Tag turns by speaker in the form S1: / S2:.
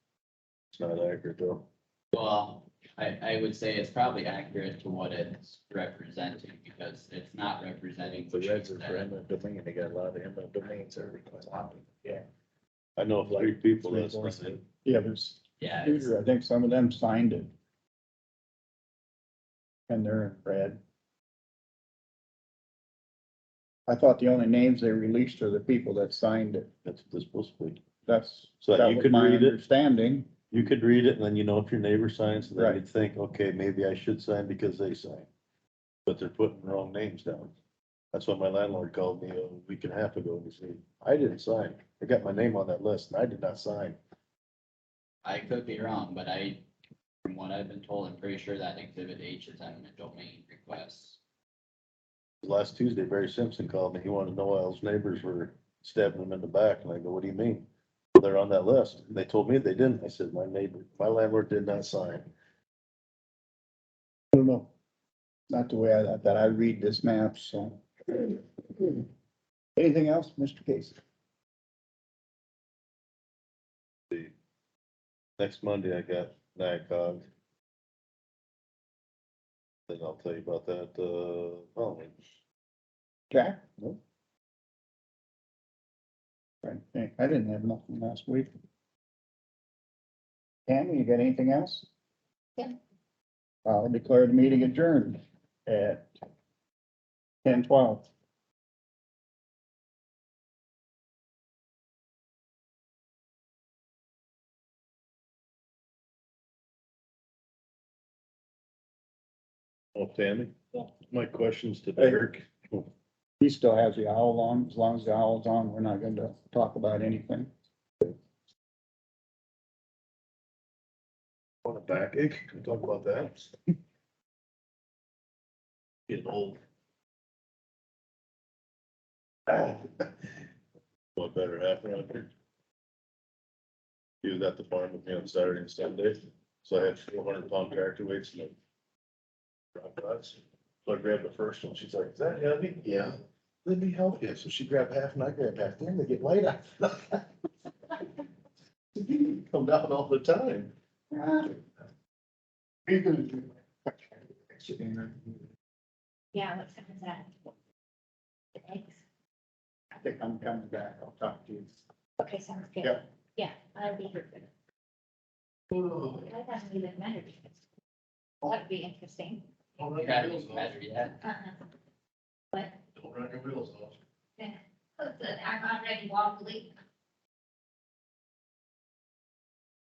S1: not accurate though.
S2: Well, I, I would say it's probably accurate to what it's representing, because it's not representing.
S1: The
S2: trees
S1: Reds are for
S2: that-
S1: eminent domain, they got a lot of eminent domains every time. Yeah. I know of three people that's. missing.
S3: Yeah, there's,
S2: Yeah, it's-
S3: I think some of them signed it. And they're in red. I thought the only names they released are the people that signed it.
S1: That's what this supposed to be.
S3: That's.
S1: So that you
S3: was
S1: could
S3: my
S1: read it?
S3: Understanding,
S1: You could read it and then you know if your neighbor signs, then
S3: Right.
S1: you'd think, okay, maybe I should sign because they signed. But they're putting wrong names down. That's what my landlord called me a week and a half ago. He said, I didn't sign. I got my name on that list and I did not sign.
S2: I could be wrong, but I, from what I've been told, I'm pretty sure that exhibit H is eminent domain requests.
S1: Last Tuesday, Barry Simpson called me. He wanted to know why his neighbors were stabbing him in the back. And I go, what do you mean? "Well, They're on that list. And they told me they didn't. I said, my neighbor, my landlord did not sign.
S3: I don't know, not the way I, that- that I read this map, so. Anything else, Mr. Casey?
S1: Next Monday, I got NICOG. Then I'll tell you about that, uh, following.
S3: Jack? No. I think, I didn't have nothing last week. Tammy, you got anything else?
S4: Yeah.
S3: I'll declare the meeting adjourned at ten twelve.
S1: Oh, Tammy?
S4: Yeah.
S1: My question's to
S3: Hey.
S1: Derek.
S3: He still has the owl on, as long as the owl's on, we're not going to talk about anything.
S1: On a backache, can we talk about that? Getting old. What better happen out here? He was at the farm with me on Saturday and Sunday, so I had four hundred pound tractor weights and. drop rods. So I grabbed the first one, she's like, is that heavy? Yeah. Let me help you, so she grabbed half and I grabbed half, then they get light up. Come down all the time.
S3: I
S4: Yeah, what time is that? Thanks.
S3: think I'm coming back, I'll talk to you.
S4: Okay, sounds good.
S3: Yep.
S4: Yeah, I'll be here.
S1: Oh,
S4: I thought we would matter because that'd be interesting.
S1: Don't
S2: You
S1: run
S2: guys
S1: your wheels
S2: don't
S1: off.
S2: measure yet.
S4: Uh-uh. But
S1: Don't run your wheels off.
S4: listen, I'm already wobbly.